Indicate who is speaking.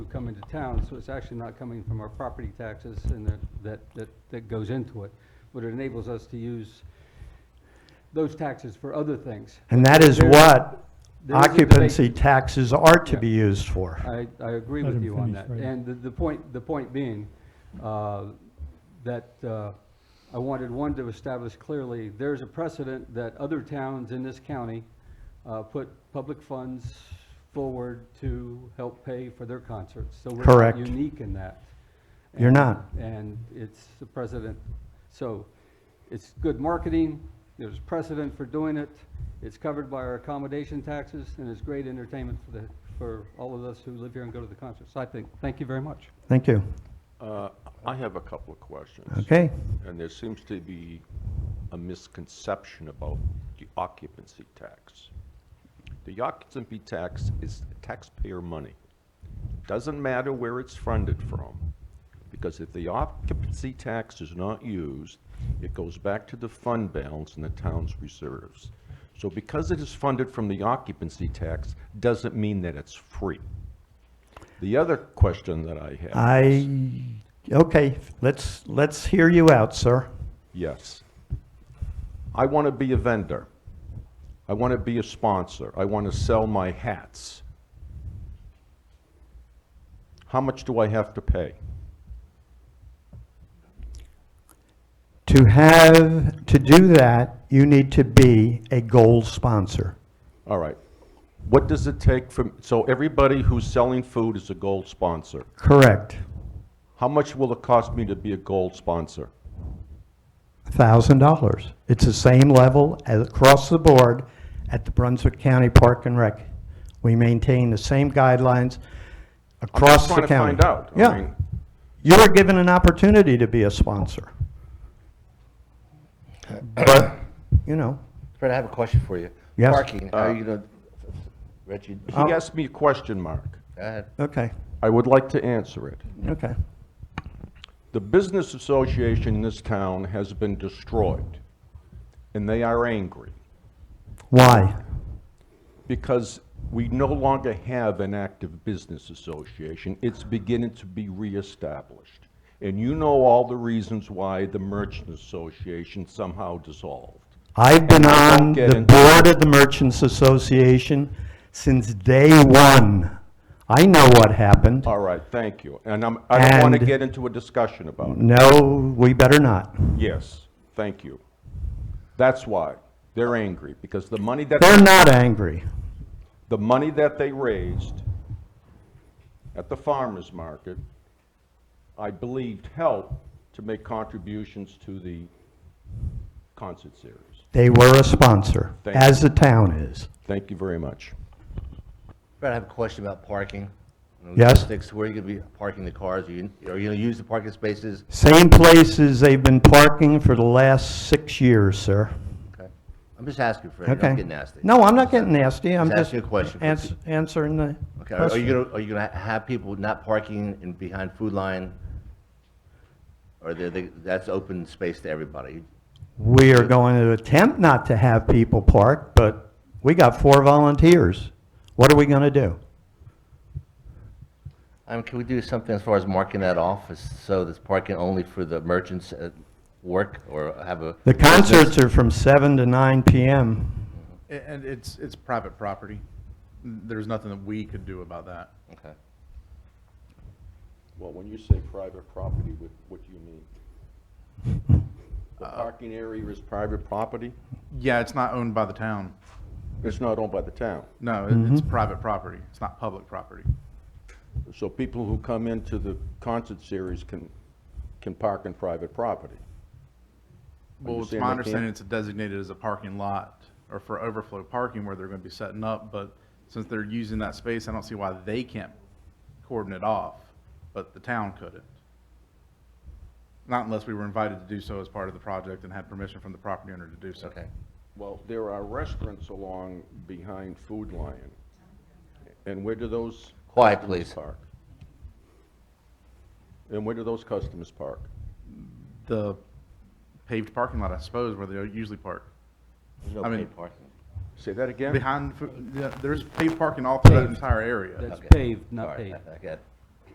Speaker 1: come into town, so it's actually not coming from our property taxes and that, that- that, that goes into it. But it enables us to use those taxes for other things.
Speaker 2: And that is
Speaker 1: There-
Speaker 2: what
Speaker 1: there is a debate.
Speaker 2: occupancy taxes are to
Speaker 1: Yeah.
Speaker 2: be used for.
Speaker 1: I, I agree
Speaker 3: Let
Speaker 1: with
Speaker 3: him
Speaker 1: you on
Speaker 3: finish,
Speaker 1: that.
Speaker 3: right.
Speaker 1: And the, the point, the point being, uh, that, uh, I wanted one to establish clearly, there's a precedent that other towns in this county, uh, put public funds forward to help pay for their concerts. So we're not
Speaker 2: Correct.
Speaker 1: unique in that.
Speaker 2: You're
Speaker 1: And-
Speaker 2: not.
Speaker 1: And it's the precedent. So it's good marketing, there's precedent for doing it, it's covered by our accommodation taxes, and it's great entertainment for the, for all of us who live here and go to the concerts, I think. Thank you very much.
Speaker 2: Thank you.
Speaker 4: Uh, I have a couple of questions.
Speaker 2: Okay?
Speaker 4: And there seems to be a misconception about the occupancy tax. The occupancy tax is taxpayer money. Doesn't matter where it's funded from, because if the occupancy tax is not used, it goes back to the fund balance in the town's reserves. So because it is funded from the occupancy tax, doesn't mean that it's free. The other question that I have.
Speaker 2: I,
Speaker 4: is-
Speaker 2: okay, let's, let's hear you out, sir.
Speaker 4: Yes. I want to be a vendor. I want to be a sponsor. I want to sell my hats. How much do I have to pay?
Speaker 2: To have, to do that, you need to be a gold sponsor.
Speaker 4: All right. What does it take from, so everybody who's selling food is a gold sponsor.
Speaker 2: Correct.
Speaker 4: How much will it cost me to be a gold sponsor?
Speaker 2: thousand dollars. It's the same level as across the board at the Brunswick County Park and Rec. We maintain the same guidelines
Speaker 4: I'm just
Speaker 2: across the
Speaker 4: trying
Speaker 2: county.
Speaker 4: to find out. I
Speaker 2: Yeah.
Speaker 4: mean,
Speaker 2: You were given an opportunity to be a sponsor. But, you know,
Speaker 5: Fred, I have a question for you.
Speaker 2: Yes.
Speaker 5: Parking, are you gonna, Reggie, go
Speaker 4: He asked me a question, Mark.
Speaker 5: ahead.
Speaker 2: okay,
Speaker 4: I would like to answer it.
Speaker 2: okay.
Speaker 4: The business association in this town has been destroyed, and they are angry
Speaker 2: Why?
Speaker 4: because we no longer have an active business association. It's beginning to be reestablished. And you know all the reasons why the merchant association somehow dissolved.
Speaker 2: I've been
Speaker 4: I won't
Speaker 2: on
Speaker 4: get
Speaker 2: the
Speaker 4: into-
Speaker 2: board of the Merchants Association since day one. I know what happened.
Speaker 4: All right, thank you. And I'm, I don't want to
Speaker 2: And-
Speaker 4: get into a discussion about it.
Speaker 2: No, we better not.
Speaker 4: Yes, thank you. That's why. They're angry because the money that.
Speaker 2: They're not angry.
Speaker 4: the money that they raised at the farmer's market, I believed helped to make contributions to the concert series.
Speaker 2: They were a sponsor,
Speaker 4: Thank you.
Speaker 2: as the town is.
Speaker 4: Thank you very much.
Speaker 5: Fred, I have a question about parking. You know,
Speaker 2: Yes.
Speaker 5: logistics, where are you gonna be parking the cars? Are you, are you gonna use the parking spaces?
Speaker 2: Same places they've been parking for the last six years, sir.
Speaker 5: Okay. I'm just asking, Fred,
Speaker 2: Okay?
Speaker 5: don't get nasty.
Speaker 2: No, I'm not getting nasty, I'm
Speaker 5: Just
Speaker 2: just.
Speaker 5: asking a question for
Speaker 2: ans- Answering the
Speaker 5: Okay, are are you
Speaker 2: question.
Speaker 5: gonna, are you gonna have people not parking in behind food line? Or they, they, that's open space to everybody?
Speaker 2: We are going to attempt not to have people park, but we got four volunteers. What are we gonna do?
Speaker 5: Um, can we do something as far as marking that off, as- so that's parking only for the merchants at work, or have a?
Speaker 2: The concerts are from seven to nine PM.
Speaker 6: A- And it's, it's private property. There's nothing that we could do about that.
Speaker 5: Okay.
Speaker 4: Well, when you say private property, what, what do you mean? The parking area is private property?
Speaker 6: Yeah, it's not owned by the town.
Speaker 4: It's not owned by the town.
Speaker 6: No, it- it's private property. It's not public property.
Speaker 4: So people who come into the concert series can, can park in private property.
Speaker 6: Well,
Speaker 4: Understand
Speaker 6: it's
Speaker 4: they
Speaker 6: my
Speaker 4: can't-
Speaker 6: understanding it's designated as a parking lot or for overflow parking where they're gonna be setting up, but since they're using that space, I don't see why they can't cordon it off, but the town couldn't. Not unless we were invited to do so as part of the project and had permission from the property owner to do so.
Speaker 5: Okay.
Speaker 4: Well, there are restaurants along behind Food Lion. And where do those?
Speaker 5: Quiet,
Speaker 4: customers
Speaker 5: please.
Speaker 4: park? And where do those customers park?
Speaker 6: The paved parking lot, I suppose, where they usually park.
Speaker 5: There's no
Speaker 6: I mean-
Speaker 5: paid parking.
Speaker 4: Say that again?
Speaker 6: Behind, the food- yeah, there's paved parking all through that entire area.
Speaker 1: That's
Speaker 5: Okay.
Speaker 1: paved, not
Speaker 5: Sorry,
Speaker 1: paid.
Speaker 5: I- I got-